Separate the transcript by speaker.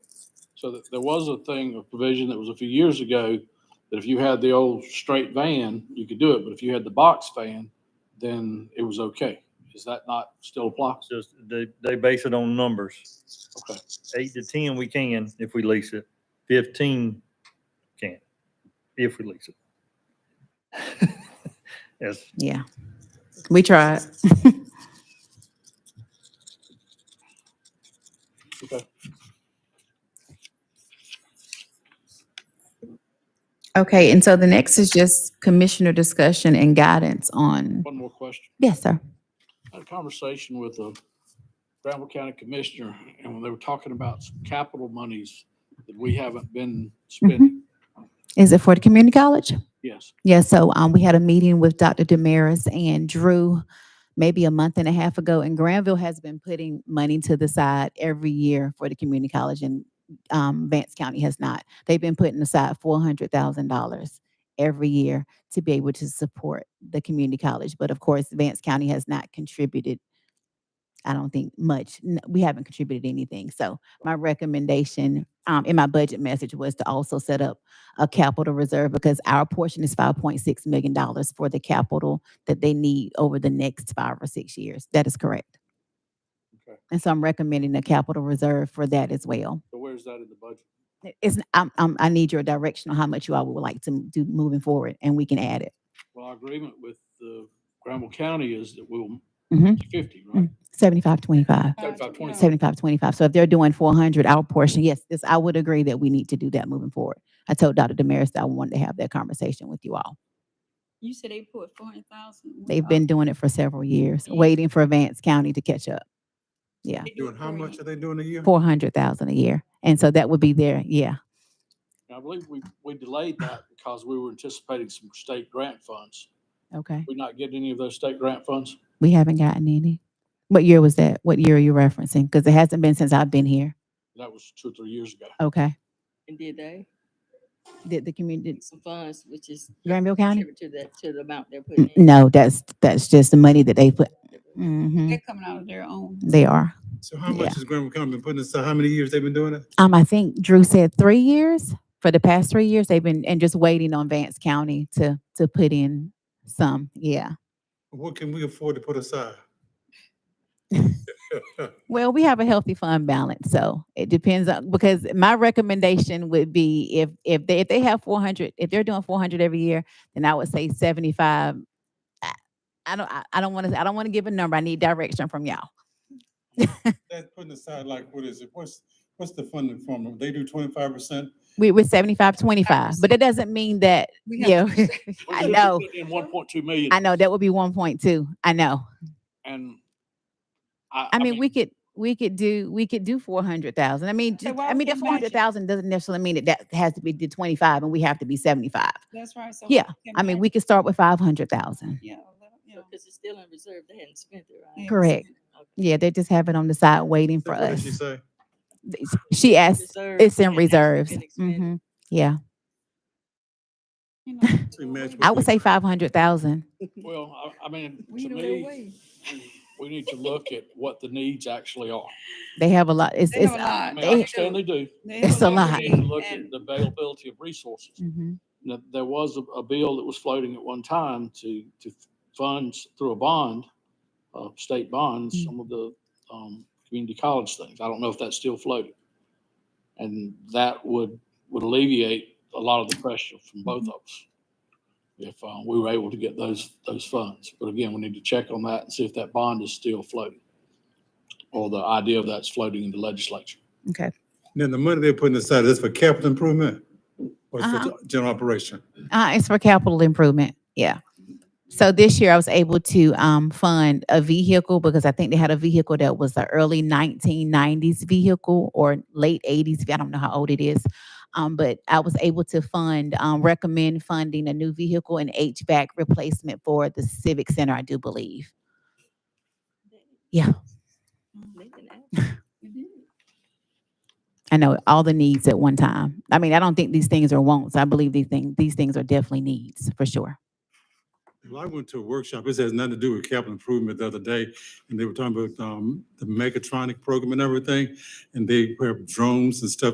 Speaker 1: So that there was a thing, a provision that was a few years ago, that if you had the old straight van, you could do it, but if you had the box van, then it was okay. Is that not still apply?
Speaker 2: It's just, they, they base it on numbers.
Speaker 1: Okay.
Speaker 2: Eight to ten, we can if we lease it. Fifteen, can, if we lease it. Yes,
Speaker 3: Yeah. We tried.
Speaker 1: Okay.
Speaker 3: Okay, and so the next is just commissioner discussion and guidance on,
Speaker 1: One more question.
Speaker 3: yes, sir.
Speaker 1: I had a conversation with a Granville County Commissioner, and when they were talking about some capital monies that we haven't been spending,
Speaker 3: Is it for the community college?
Speaker 1: yes.
Speaker 3: Yeah, so um, we had a meeting with Dr. Damaris and Drew maybe a month and a half ago, and Granville has been putting money to the side every year for the community college, and um, Vance County has not. They've been putting aside four hundred thousand dollars every year to be able to support the community college, but of course, Vance County has not contributed. I don't think much. N- We haven't contributed anything. So my recommendation um, in my budget message was to also set up a capital reserve because our portion is five point six million dollars for the capital that they need over the next five or six years. That is correct.
Speaker 1: Okay.
Speaker 3: And so I'm recommending a capital reserve for that as well.
Speaker 1: So where's that in the budget?
Speaker 3: It- It's, i i need your direction on how much you all would like to m- do moving forward and we can add it.
Speaker 1: Well, our agreement with the Granville County is that we'll
Speaker 3: Mhm.
Speaker 1: fifty, right?
Speaker 3: Seventy-five, twenty-five,
Speaker 1: Seventy-five, twenty-five.
Speaker 3: seventy-five, twenty-five. So if they're doing four hundred, our portion, yes, this, I would agree that we need to do that moving forward. I told Dr. Damaris that I wanted to have that conversation with you all.
Speaker 4: You said they put four hundred thousand?
Speaker 3: They've been doing it for several years,
Speaker 4: Yeah.
Speaker 3: waiting for Vance County to catch up. Yeah,
Speaker 5: Doing how much are they doing a year?
Speaker 3: four hundred thousand a year. And so that would be their, yeah,
Speaker 1: And I believe we, we delayed that because we were anticipating some state grant funds.
Speaker 3: okay.
Speaker 1: We not getting any of those state grant funds?
Speaker 3: We haven't gotten any. What year was that? What year are you referencing? Because it hasn't been since I've been here.
Speaker 1: That was two or three years ago.
Speaker 3: Okay.
Speaker 4: And did they?
Speaker 3: Did the community,
Speaker 4: Some funds, which is.
Speaker 3: Granville County?
Speaker 4: contribute To that, to the amount they're putting
Speaker 3: N-
Speaker 4: in.
Speaker 3: No, that's, that's just the money that they put. Mhm,
Speaker 4: They're coming out of their own.
Speaker 3: they are.
Speaker 5: So how
Speaker 3: Yeah.
Speaker 5: much is Granville County been putting aside? How many years they've been doing it?
Speaker 3: Um, I think Drew said three years. For the past three years, they've been, and just waiting on Vance County to, to put in some, yeah.
Speaker 5: What can we afford to put aside?
Speaker 3: Well, we have a healthy fund balance, so it depends on, because my recommendation would be if, if they, if they have four hundred, if they're doing four hundred every year, then I would say seventy-five. I- I don't, I, I don't want to, I don't want to give a number. I need direction from y'all.
Speaker 5: That's putting aside like, what is it? What's, what's the funding formula? They do twenty-five percent?
Speaker 3: We, we're seventy-five, twenty-five, but that doesn't mean that,
Speaker 4: We have
Speaker 3: yeah.
Speaker 1: We
Speaker 3: I
Speaker 1: could have
Speaker 3: know,
Speaker 1: put In one point two million
Speaker 3: I know, that would be one point two. I know.
Speaker 1: and
Speaker 3: I mean, we could, we could do, we could do four hundred thousand. I mean,
Speaker 4: So
Speaker 3: ju-
Speaker 4: why
Speaker 3: I
Speaker 4: we
Speaker 3: mean, that
Speaker 4: can't
Speaker 3: four
Speaker 4: match
Speaker 3: hundred
Speaker 4: it?
Speaker 3: thousand doesn't necessarily mean that that has to be the twenty-five and we have to be seventy-five.
Speaker 4: That's right. so
Speaker 3: Yeah,
Speaker 4: can
Speaker 3: I mean,
Speaker 4: match
Speaker 3: we
Speaker 4: it.
Speaker 3: could start with five hundred thousand.
Speaker 4: Yeah, well, you know,
Speaker 6: Because it's still in reserve, they hadn't spent it,
Speaker 4: they
Speaker 6: right?
Speaker 4: ain't
Speaker 3: Correct.
Speaker 4: spent it. Okay.
Speaker 3: Yeah, they just have it on the side waiting for
Speaker 5: What did
Speaker 3: us.
Speaker 5: she say?
Speaker 3: Th- She asked,
Speaker 6: Reserve,
Speaker 3: it's in
Speaker 6: and hasn't
Speaker 3: reserves. Mm-hmm.
Speaker 6: been expended.
Speaker 3: hmm yeah,
Speaker 4: You know,
Speaker 5: We match
Speaker 3: I
Speaker 5: what
Speaker 3: would
Speaker 5: they-
Speaker 3: say five hundred thousand.
Speaker 1: Well, I, I mean,
Speaker 4: We
Speaker 1: to
Speaker 4: know
Speaker 1: me,
Speaker 4: way.
Speaker 1: we need to look at what the needs actually are.
Speaker 3: They have a lot, it's,
Speaker 4: They
Speaker 3: it's.
Speaker 4: have a
Speaker 3: uh,
Speaker 1: I
Speaker 4: lot.
Speaker 1: mean, I
Speaker 3: They-
Speaker 1: understand they do.
Speaker 4: They
Speaker 3: It's
Speaker 4: have
Speaker 3: a
Speaker 1: but
Speaker 3: lot.
Speaker 1: We need to look at
Speaker 4: And
Speaker 1: the availability of resources.
Speaker 3: mhm.
Speaker 1: Now, there was a, a bill that was floating at one time to, to funds through a bond, uh, state bonds,
Speaker 3: Mm.
Speaker 1: some of the, um, community college things. I don't know if that's still floating. And that would, would alleviate a lot of the pressure from both of us if, uh, we were able to get those, those funds. But again, we need to check on that and see if that bond is still floating or the idea of that's floating in the legislature.
Speaker 3: Okay,
Speaker 5: Now, the money they're putting aside, is for capital improvement? Or it's
Speaker 3: Uh-huh.
Speaker 5: for ge- general operation?
Speaker 3: uh, it's for capital improvement, yeah. So this year I was able to, um, fund a vehicle because I think they had a vehicle that was the early nineteen nineties vehicle or late eighties, I don't know how old it is. Um, but I was able to fund, um, recommend funding a new vehicle and HVAC replacement for the civic center, I do believe. Yeah.
Speaker 4: Mm-hmm.
Speaker 6: They didn't ask.
Speaker 4: we did.
Speaker 3: I know all the needs at one time. I mean, I don't think these things are wants. I believe these things, these things are definitely needs for sure.
Speaker 5: Well, I went to a workshop, this has nothing to do with capital improvement the other day, and they were talking about, um, the mechatronic program and everything, and they have drones and stuff